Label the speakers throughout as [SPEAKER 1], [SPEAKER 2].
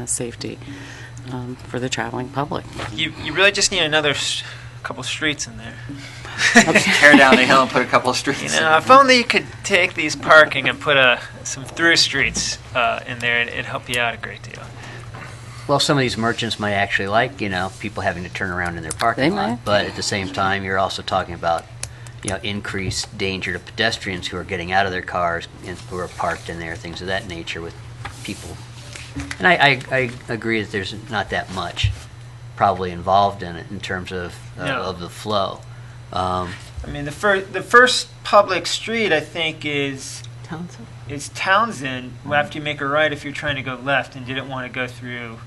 [SPEAKER 1] uh, safety um, for the traveling public.
[SPEAKER 2] You, you really just need another s- couple streets in there.
[SPEAKER 3] Tear down the hill and put a couple of streets.
[SPEAKER 2] You
[SPEAKER 3] in.
[SPEAKER 2] know, if only you could take these parking and put a, some through streets uh, in there, it, it'd help you out a great deal.
[SPEAKER 4] Well, some of these merchants might actually like, you know, people having to turn around in their parking
[SPEAKER 1] They
[SPEAKER 4] lot.
[SPEAKER 1] might.
[SPEAKER 4] But at the same time, you're also talking about, you know, increased danger to pedestrians who are getting out of their cars and who are parked in there, things of that nature with people. And I, I, I agree that there's not that much probably involved in it in terms of uh,
[SPEAKER 2] No.
[SPEAKER 4] of the flow. Um,
[SPEAKER 2] I mean, the first the first public street I think is
[SPEAKER 1] Townsend?
[SPEAKER 2] is Townsend. After you make a right, if you're trying to go left and didn't want to go through.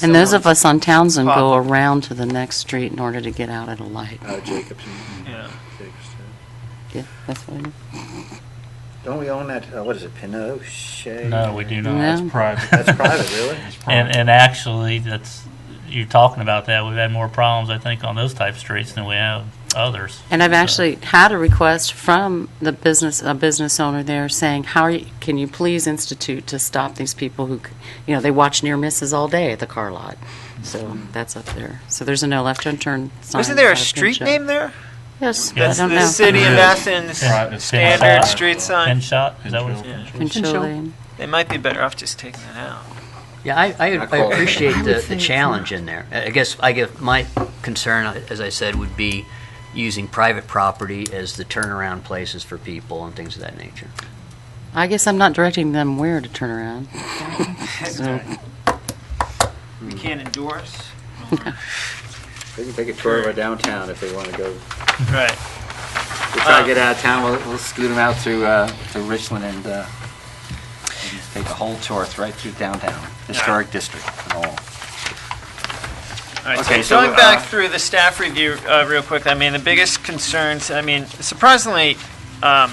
[SPEAKER 1] And those of
[SPEAKER 2] someone's-
[SPEAKER 1] us on Townsend go
[SPEAKER 2] Pop.
[SPEAKER 1] around to the next street in order to get out at a light.
[SPEAKER 5] Uh, Jacobson.
[SPEAKER 2] Yeah.
[SPEAKER 5] Jacobson.
[SPEAKER 1] Yeah, that's what it is.
[SPEAKER 5] Don't we own that, uh, what is it, Pinochet?
[SPEAKER 6] No, we do not. That's
[SPEAKER 1] No.
[SPEAKER 6] private.
[SPEAKER 5] That's private, really?
[SPEAKER 6] It's
[SPEAKER 7] And,
[SPEAKER 6] private.
[SPEAKER 7] and actually, that's, you're talking about that, we've had more problems, I think, on those type of streets than we have others.
[SPEAKER 1] And I've actually had a request from the business, a business owner there saying, how are you, can you please institute to stop these people who, c- you know, they watch near misses all day at the car lot? So that's up there. So there's a no left turn turn sign.
[SPEAKER 2] Wasn't there a
[SPEAKER 1] by
[SPEAKER 2] street
[SPEAKER 1] Pinchot.
[SPEAKER 2] name there?
[SPEAKER 1] Yes, I
[SPEAKER 2] That's
[SPEAKER 1] don't
[SPEAKER 2] the
[SPEAKER 1] know.
[SPEAKER 2] city of
[SPEAKER 6] Yeah.
[SPEAKER 2] Athens
[SPEAKER 6] Right, it's
[SPEAKER 2] standard
[SPEAKER 7] Pinchot.
[SPEAKER 2] street sign.
[SPEAKER 7] Pin shot, is that what it's?
[SPEAKER 6] Pinchot.
[SPEAKER 2] Yeah.
[SPEAKER 1] Pinchot Lane.
[SPEAKER 2] They might be better off just taking that out.
[SPEAKER 4] Yeah, I, I,
[SPEAKER 3] Not
[SPEAKER 4] I
[SPEAKER 3] qualified.
[SPEAKER 4] appreciate
[SPEAKER 1] would
[SPEAKER 4] the,
[SPEAKER 1] say
[SPEAKER 4] the
[SPEAKER 1] it's
[SPEAKER 4] challenge in there. I I guess, I give, my concern, as I said, would be using private property as the turnaround places for people and things of that nature.
[SPEAKER 1] I guess I'm not directing them where to turn around. So-
[SPEAKER 2] We can't endorse.
[SPEAKER 3] They can take a tour of our downtown if they want to go.
[SPEAKER 2] Right.
[SPEAKER 3] We'll try
[SPEAKER 2] Uh,
[SPEAKER 3] to get out of town. We'll, we'll scoot them out through uh, to Richland and, uh, and take a whole tour th- right through downtown, historic district and all.
[SPEAKER 2] All right,
[SPEAKER 3] Okay,
[SPEAKER 2] so
[SPEAKER 3] so,
[SPEAKER 2] going back
[SPEAKER 3] uh,
[SPEAKER 2] through the staff review uh, real quick, I mean, the biggest concerns, I mean, surprisingly, um,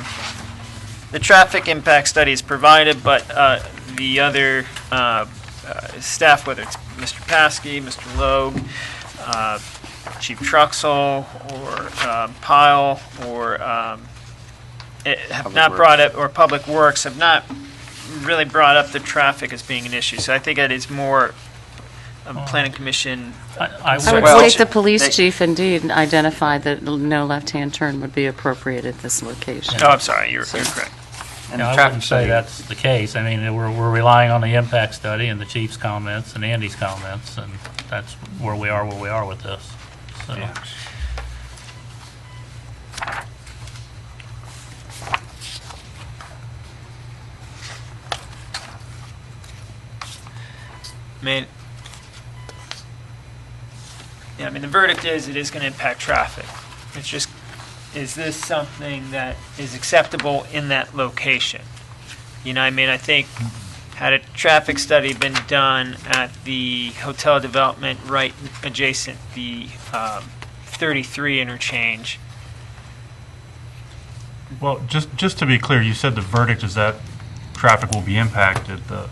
[SPEAKER 2] the traffic impact study is provided, but uh, the other uh, uh, staff, whether it's Mr. Paskey, Mr. Logue, uh, Chief Truxell, or um, Pyle, or um, eh, have
[SPEAKER 3] Public
[SPEAKER 2] not
[SPEAKER 3] Works.
[SPEAKER 2] brought up, or Public Works have not really brought up the traffic as being an issue. So I think it is more a planning commission
[SPEAKER 7] I- I
[SPEAKER 1] I would
[SPEAKER 3] Well,
[SPEAKER 1] say
[SPEAKER 3] sh-
[SPEAKER 1] the police
[SPEAKER 3] they-
[SPEAKER 1] chief indeed identified that no left-hand turn would be appropriate at this location.
[SPEAKER 2] Oh, I'm sorry, you're, you're correct.
[SPEAKER 3] And
[SPEAKER 7] Yeah,
[SPEAKER 3] the
[SPEAKER 7] I
[SPEAKER 3] traffic
[SPEAKER 7] wouldn't say
[SPEAKER 3] study.
[SPEAKER 7] that's the case. I mean, we're, we're relying on the impact study and the chief's comments and Andy's comments, and that's where we are, where we are with this. So,
[SPEAKER 6] Yeah.
[SPEAKER 2] I mean, yeah, I mean, the verdict is it is going to impact traffic. It's just, is this something that is acceptable in that location? You know, I mean, I think had a traffic study been done at the hotel development right adjacent the um, 33 interchange,
[SPEAKER 6] Well, just, just to be clear, you said the verdict is that traffic will be impacted. The,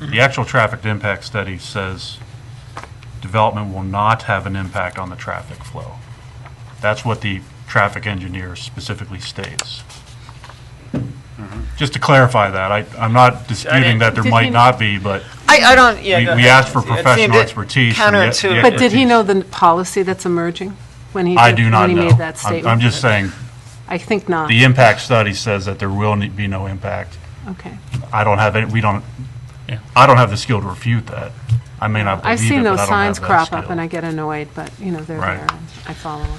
[SPEAKER 6] the actual traffic impact study says development will not have an impact on the traffic flow. That's what the traffic engineer specifically states. Just to clarify that, I, I'm not disputing that there
[SPEAKER 1] Did he-
[SPEAKER 6] might not be, but
[SPEAKER 2] I, I don't, yeah.
[SPEAKER 6] we
[SPEAKER 2] go
[SPEAKER 6] we
[SPEAKER 2] ahead.
[SPEAKER 6] asked for
[SPEAKER 2] It seemed
[SPEAKER 6] professional
[SPEAKER 2] it
[SPEAKER 6] expertise. and the- E the
[SPEAKER 2] Counterintuitive.
[SPEAKER 8] But did he
[SPEAKER 6] expertise-
[SPEAKER 8] know the policy that's emerging when he
[SPEAKER 6] I
[SPEAKER 8] did-
[SPEAKER 6] do not know.
[SPEAKER 8] When he made that
[SPEAKER 6] I'm-
[SPEAKER 8] statement?
[SPEAKER 6] I'm just saying,
[SPEAKER 8] I think not.
[SPEAKER 6] the impact study says that there will ne- be no impact.
[SPEAKER 8] Okay.
[SPEAKER 6] I don't have, any. we don't,
[SPEAKER 7] Yeah.
[SPEAKER 6] I don't have the skill to refute that. I may not
[SPEAKER 8] I've
[SPEAKER 6] believe
[SPEAKER 8] seen
[SPEAKER 6] it, but
[SPEAKER 8] those
[SPEAKER 6] I don't have
[SPEAKER 8] signs crop
[SPEAKER 6] that
[SPEAKER 8] up and I
[SPEAKER 6] skill.
[SPEAKER 8] get annoyed, but, you know, they're
[SPEAKER 6] Right.
[SPEAKER 8] there. and I follow them.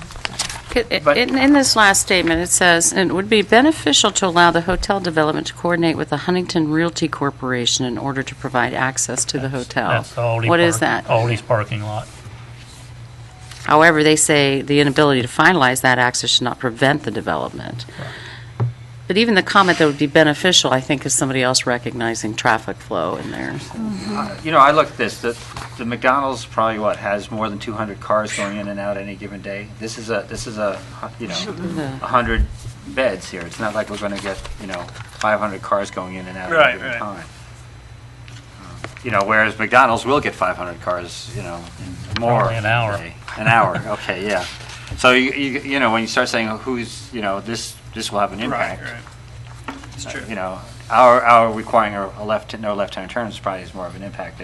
[SPEAKER 2] But-
[SPEAKER 1] In, in this last statement, it says, "It would be beneficial to allow the hotel development to coordinate with the Huntington Realty Corporation in order to provide access to the hotel."
[SPEAKER 7] That's the Aldi
[SPEAKER 1] What is
[SPEAKER 7] park-
[SPEAKER 1] that?
[SPEAKER 7] Aldi's parking lot.
[SPEAKER 1] However, they say the inability to finalize that access should not prevent the development. But even the comment that would be beneficial, I think, is somebody else recognizing traffic flow in there.
[SPEAKER 3] Uh, You know, I look at this, the the McDonald's probably what, has more than 200 cars going in and out any given day. This is a, this is a, hu- you know, 100 beds here. It's not like we're going to get, you know, 500 cars going in and out at
[SPEAKER 2] Right,
[SPEAKER 3] any given
[SPEAKER 2] right.
[SPEAKER 3] time. Um, You know, whereas McDonald's will get 500 cars, you know, more.
[SPEAKER 7] Probably an hour.
[SPEAKER 3] a day. An hour, okay, yeah. So, you, you you know, when you start saying who's, you know, this, this will have an
[SPEAKER 2] Right,
[SPEAKER 3] impact.
[SPEAKER 2] right. It's
[SPEAKER 3] uh,
[SPEAKER 2] true.
[SPEAKER 3] You know, our, our requiring a a left, no left-hand turn is probably is more of an impact